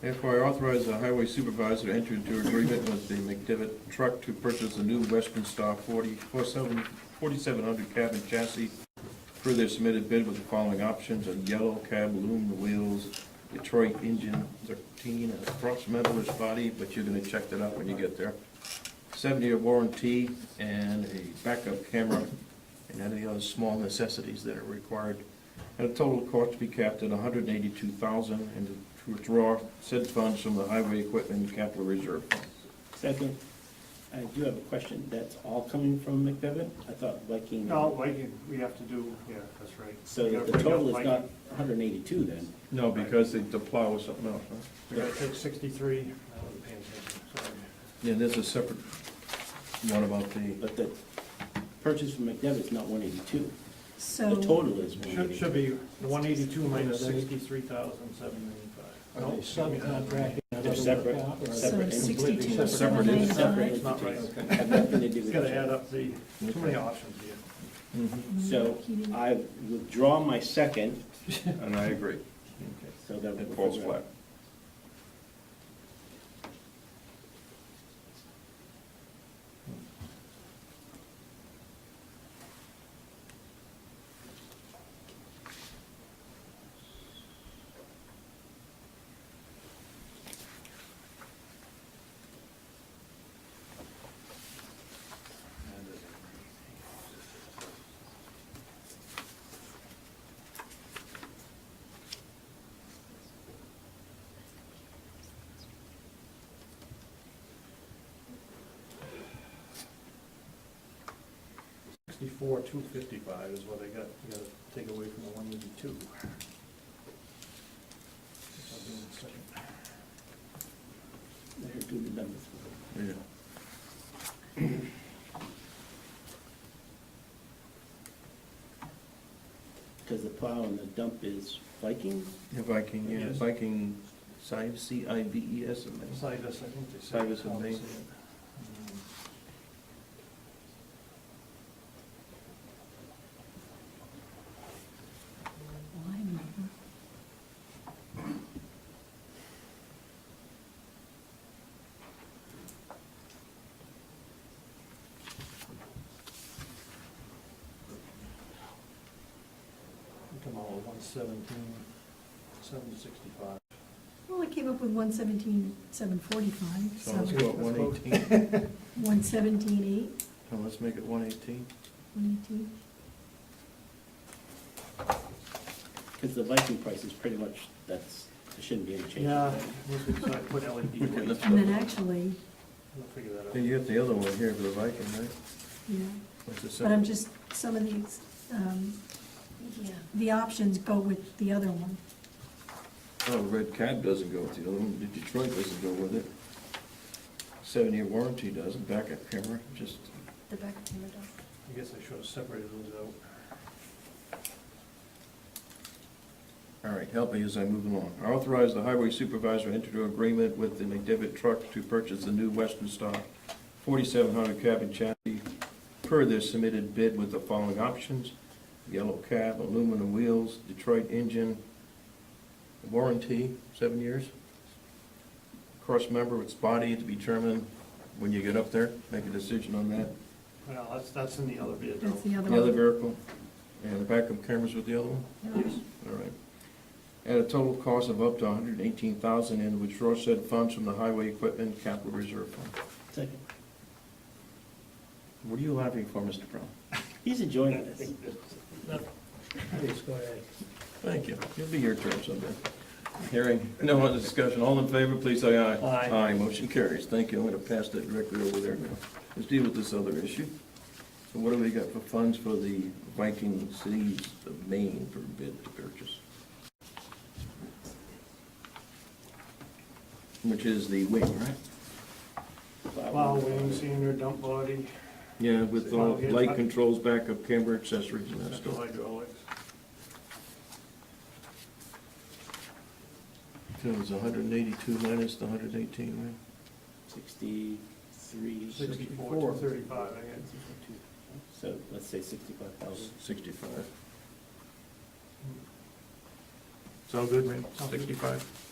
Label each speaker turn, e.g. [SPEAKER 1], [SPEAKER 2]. [SPEAKER 1] Therefore, I authorize the highway supervisor to enter into agreement with the McDevitt truck to purchase a new Western Star 40 47 4700 cab and chassis per their submitted bid with the following options, a yellow cab aluminum wheels, Detroit engine 13, and approximately body, but you're gonna check that out when you get there. 70-year warranty and a backup camera and any other small necessities that are required. At a total cost to be capped at $182,000 and to withdraw said funds from the highway equipment capital reserve. fund.
[SPEAKER 2] Second, I do have a question. That's all coming from McDevitt? I thought Viking.
[SPEAKER 3] No, Viking, we have to do, yeah, that's right.
[SPEAKER 2] So
[SPEAKER 3] We gotta
[SPEAKER 2] the
[SPEAKER 3] bring up
[SPEAKER 2] total is not
[SPEAKER 3] Viking.
[SPEAKER 2] hundred and eighty-two then?
[SPEAKER 1] No, because the the plow was something else, huh?
[SPEAKER 3] We gotta take sixty-three, I wasn't paying attention, sorry.
[SPEAKER 1] Yeah, there's a separate one about the,
[SPEAKER 2] But the purchase from McDevitt is not one eighty-two. The
[SPEAKER 4] So,
[SPEAKER 2] total is one
[SPEAKER 3] Should, should
[SPEAKER 2] eighty-two.
[SPEAKER 3] be one eighty-two minus sixty-three thousand seven ninety-five.
[SPEAKER 5] Are they subcontracting?
[SPEAKER 2] They're separate,
[SPEAKER 4] so
[SPEAKER 2] separate. entities.
[SPEAKER 4] sixty-two oh
[SPEAKER 1] Separate
[SPEAKER 4] seven
[SPEAKER 1] is-
[SPEAKER 2] Separate
[SPEAKER 4] ninety-five.
[SPEAKER 3] It's not right.
[SPEAKER 2] entities. Have nothing to do
[SPEAKER 3] It's
[SPEAKER 2] with
[SPEAKER 3] gotta
[SPEAKER 2] each other.
[SPEAKER 3] add up the, too many options here.
[SPEAKER 1] Mm-hmm.
[SPEAKER 2] So I withdraw my second,
[SPEAKER 1] and I agree,
[SPEAKER 2] so that.
[SPEAKER 1] it falls flat.
[SPEAKER 3] Sixty-four, two fifty-five is what I got, you gotta take away from the one eighty-two.
[SPEAKER 2] There, do the numbers.
[SPEAKER 1] Yeah.
[SPEAKER 2] Because the plow and the dump is Viking?
[SPEAKER 1] The Viking, yeah,
[SPEAKER 3] Yes.
[SPEAKER 1] Viking, Cives, C-I-V-E-S, E and that's-
[SPEAKER 3] Citus, I think they said. mm,
[SPEAKER 1] Citus and Maine.
[SPEAKER 4] Line number.
[SPEAKER 3] Come on, one seventeen, seven sixty-five.
[SPEAKER 4] Well, I came up with one seventeen, seven forty-five,
[SPEAKER 1] so let's
[SPEAKER 4] so
[SPEAKER 1] go at one eighteen,
[SPEAKER 4] one seventeen, eight,
[SPEAKER 1] so let's make it one eighteen.
[SPEAKER 4] one eighteen.
[SPEAKER 2] Because the Viking price is pretty much, that's, there shouldn't be any change.
[SPEAKER 3] Yeah, once we decide, put LED
[SPEAKER 1] We can
[SPEAKER 3] E lights,
[SPEAKER 1] lift
[SPEAKER 4] And then
[SPEAKER 1] up.
[SPEAKER 4] actually,
[SPEAKER 3] we'll figure that out.
[SPEAKER 1] Then you have the other one here for the Viking, right?
[SPEAKER 4] yeah,
[SPEAKER 1] That's a
[SPEAKER 4] but
[SPEAKER 1] separate-
[SPEAKER 4] I'm just, some of these, um, the options go with the other one.
[SPEAKER 1] Oh, red cab doesn't go with the other one, The Detroit doesn't go with it. Seven-year warranty doesn't, backup camera, just,
[SPEAKER 4] The back camera does.
[SPEAKER 3] I guess I should have separated those out.
[SPEAKER 1] all right, help me as I move along. I authorize the highway supervisor to enter into agreement with the McDevitt truck to purchase the new Western Star 4700 cab and chassis per their submitted bid with the following options: yellow cab, aluminum wheels, Detroit engine, warranty, seven years. Cross member, it's body to be determined when you get up there, make a decision on that.
[SPEAKER 3] Well, that's, that's in the other bid though.
[SPEAKER 4] That's the other
[SPEAKER 1] The other
[SPEAKER 4] one.
[SPEAKER 1] vehicle, and the backup cameras with the other one?
[SPEAKER 4] Yes.
[SPEAKER 1] All right. At a total cost of up to hundred and eighteen thousand, and withdraw said funds from the highway equipment capital reserve fund.
[SPEAKER 2] Second.
[SPEAKER 1] What are you laughing for, Mr. Brown?
[SPEAKER 2] He's enjoying this.
[SPEAKER 3] Please, go ahead.
[SPEAKER 1] Thank you. It'll be your turn someday. Hearing no other discussion, all in favor, please say aye.
[SPEAKER 3] Aye.
[SPEAKER 1] Aye, motion carries. Thank you. I'm gonna pass that directly over there now. Let's deal with this other issue. So what do we got for funds for the Viking Cities of Maine for bid to purchase? Which is the wing, right?
[SPEAKER 3] Plow wing, senior dump body,
[SPEAKER 1] Yeah, with all light controls, backup camera, accessories and that
[SPEAKER 3] central
[SPEAKER 1] stuff.
[SPEAKER 3] hydraulics.
[SPEAKER 1] So it was hundred and eighty-two minus the hundred and eighteen, right?
[SPEAKER 2] Sixty-three.
[SPEAKER 3] Sixty-four, thirty-five, I guess.
[SPEAKER 2] So let's say sixty-five thousand.
[SPEAKER 1] 65. Sound good, man?
[SPEAKER 3] Sounds good.
[SPEAKER 1] 65.